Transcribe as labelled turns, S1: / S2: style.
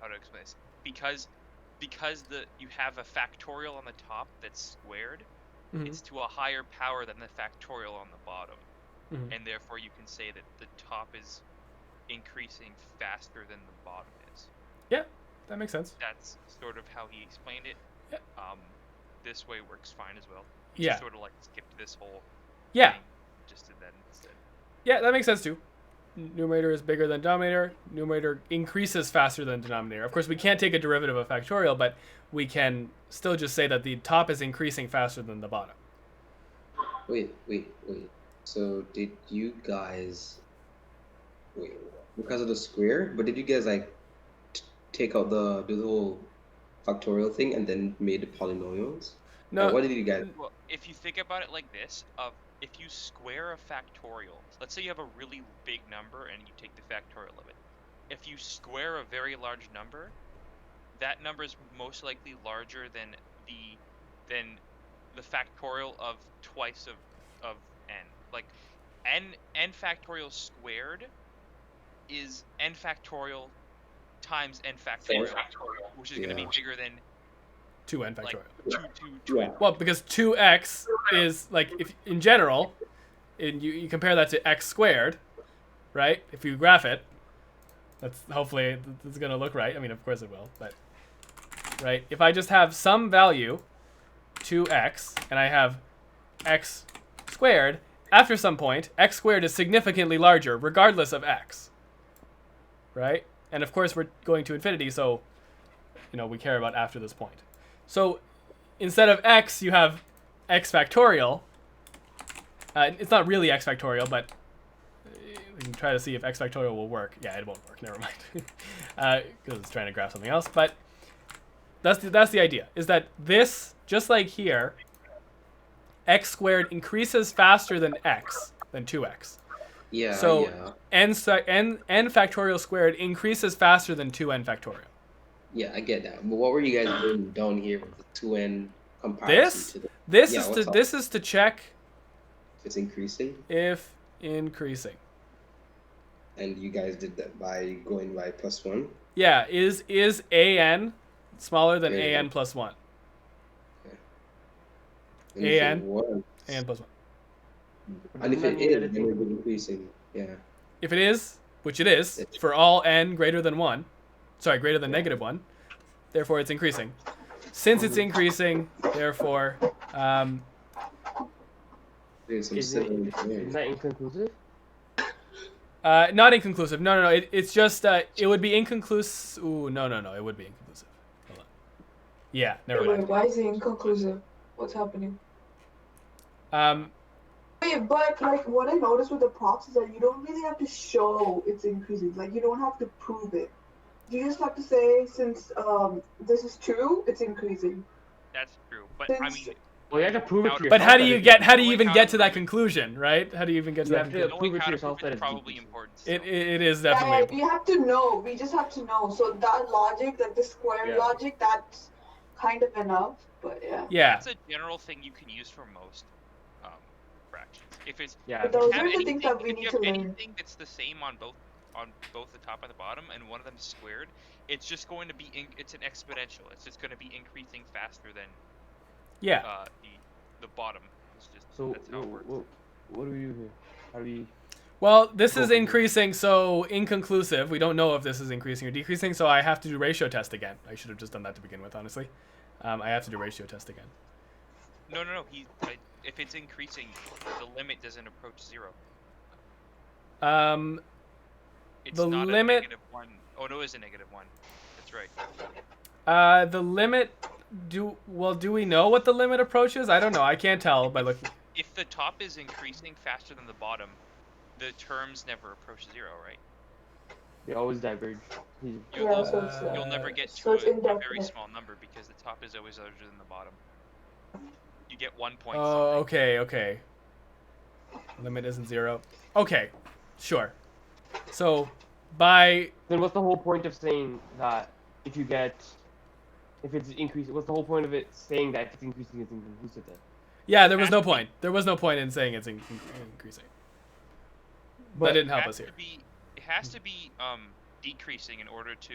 S1: how to explain this because because the you have a factorial on the top that's squared
S2: Mhm.
S1: it's to a higher power than the factorial on the bottom
S2: Mhm.
S1: and therefore you can say that the top is increasing faster than the bottom is
S2: That makes sense.
S1: that's sort of how he explained it
S2: Yeah.
S1: um this way works fine as well He
S2: Yeah.
S1: sort of like skipped this whole
S2: Yeah.
S1: thing, just did that instead
S2: Yeah, that makes sense too. Numerator is bigger than denominator. Numerator increases faster than denominator. Of course, we can't take a derivative of factorial, but we can still just say that the top is increasing faster than the bottom.
S3: Wait, wait, wait. So did you guys wait because of the square? But did you guys like t- take out the do the whole factorial thing and then made the polynomials?
S2: No,
S3: Or what did you guys?
S1: Well, if you think about it like this, of if you square a factorial, let's say you have a really big number and you take the factorial of it. If you square a very large number, that number is most likely larger than the than the factorial of twice of of n. Like n n factorial squared is n factorial times n factorial, which is going to
S3: Yeah.
S1: be bigger than
S2: two n
S1: like
S2: factorial.
S1: two two two
S3: Yeah.
S2: Well, because 2x is like if in general, and you, you compare that to x squared, right? If you graph it, that's hopefully th- it's gonna look right. I mean, of course it will, but right. If I just have some value, 2x, and I have x squared, after some point, x squared is significantly larger, regardless of x. Right? And of course, we're going to infinity, so you know we care about after this point. So instead of x, you have x factorial. Uh, it's not really x factorial, but uh, we can try to see if x factorial will work. Yeah, it won't work. Never mind, because it's trying to graph something else. But that's the, that's the idea. Is that this just like here, x squared increases faster than x than two x.
S3: Yeah.
S2: So-
S3: yeah.
S2: N, sa- n n factorial squared increases faster than two n factorial.
S3: Yeah, I get that. But what were you guys doing down here with the two n comparison
S2: This
S3: to the,
S2: this
S3: Yeah,
S2: is to
S3: what's up?
S2: this is to check
S3: it's increasing?
S2: if increasing.
S3: And you guys did that by going by plus one.
S2: Yeah, is is an smaller than
S3: Yeah.
S2: an plus one?
S3: And if it
S2: AN.
S3: was-
S2: An plus one.
S3: And if it is, then it would be increasing. Yeah.
S2: If it is, which it is, for all n greater than one, sorry, greater than negative one, therefore it's increasing. Since it's increasing, therefore, um,
S3: There's some
S4: Is it-
S3: similar
S4: Is
S3: things.
S4: that inconclusive?
S2: uh, not inconclusive. No, no, no. It, it's just uh, it would be inconclusive. Ooh, no, no, no. It would be inconclusive. Hold on. Yeah, never
S5: Wait,
S2: mind.
S5: why is it inconclusive? What's happening?
S2: Um,
S5: Wait, but like what I noticed with the props is that you don't really have to show it's increasing. Like you don't have to prove it. You just have to say since um this is true, it's increasing.
S1: That's true, but I mean,
S4: Well, you have to prove it to yourself.
S2: but how do
S4: that
S2: you
S4: it's
S2: get?
S4: inclusive.
S2: How do you even get to that conclusion? Right? How do you even get to
S4: You
S2: that?
S4: have to-
S2: conclusion?
S1: knowing
S4: prove it to
S1: how to
S4: yourself
S1: prove
S4: that
S1: it's
S4: it's
S1: probably
S4: decreasing.
S1: important.
S2: It,
S1: still.
S2: it, it is
S5: Yeah,
S2: definitely.
S5: we have to know. We just have to know. So that logic, like the square
S4: Yeah.
S5: logic, that's kind of enough. But yeah.
S2: Yeah.
S1: That's a general thing you can use for most um, fractions. If it's
S4: Yeah.
S5: But those
S1: have
S5: are the
S1: anything,
S5: things that we
S1: if you
S5: need
S1: have
S5: to learn.
S1: anything that's the same on both on both the top and the bottom, and one of them is squared, it's just going to be in, it's an exponential. It's just going to be increasing faster than
S2: Yeah.
S1: uh, the the bottom. It's just
S4: So
S1: that's how it works.
S4: What, what do we do here? How do we?
S2: Well, this is
S4: Cool.
S2: increasing, so inconclusive. We don't know if this is increasing or decreasing, so I have to do ratio test again. I should have just done that to begin with, honestly. Um, I have to do ratio test again.
S1: No, no, no. He I, if it's increasing, the limit doesn't approach zero.
S2: Um,
S1: It's
S2: The
S1: not
S2: limit-
S1: a negative one. Oh no, it is a negative one. That's right.
S2: uh, the limit. Do well. Do we know what the limit approaches? I don't know. I can't tell by looking.
S1: If the top is increasing faster than the bottom, the terms never approach zero, right?
S4: They always diverge. He's-
S1: You
S5: Yeah,
S1: lose-
S5: so it's,
S2: uh,
S1: you'll never get to
S5: so it's
S1: a, a very
S5: indefinite.
S1: small number because the top is always larger than the bottom. You get one point.
S2: Oh, okay, okay. Limit isn't zero. Okay, sure. So, by
S4: Then what's the whole point of saying that if you get, if it's increasing, what's the whole point of it saying that if it's increasing, it's inconclusive then?
S2: yeah, there was no point. There was no point in saying it's in- increasing. that
S4: But
S2: didn't
S1: It
S2: help
S1: has
S2: us here.
S1: To be, it has to be um, decreasing in order to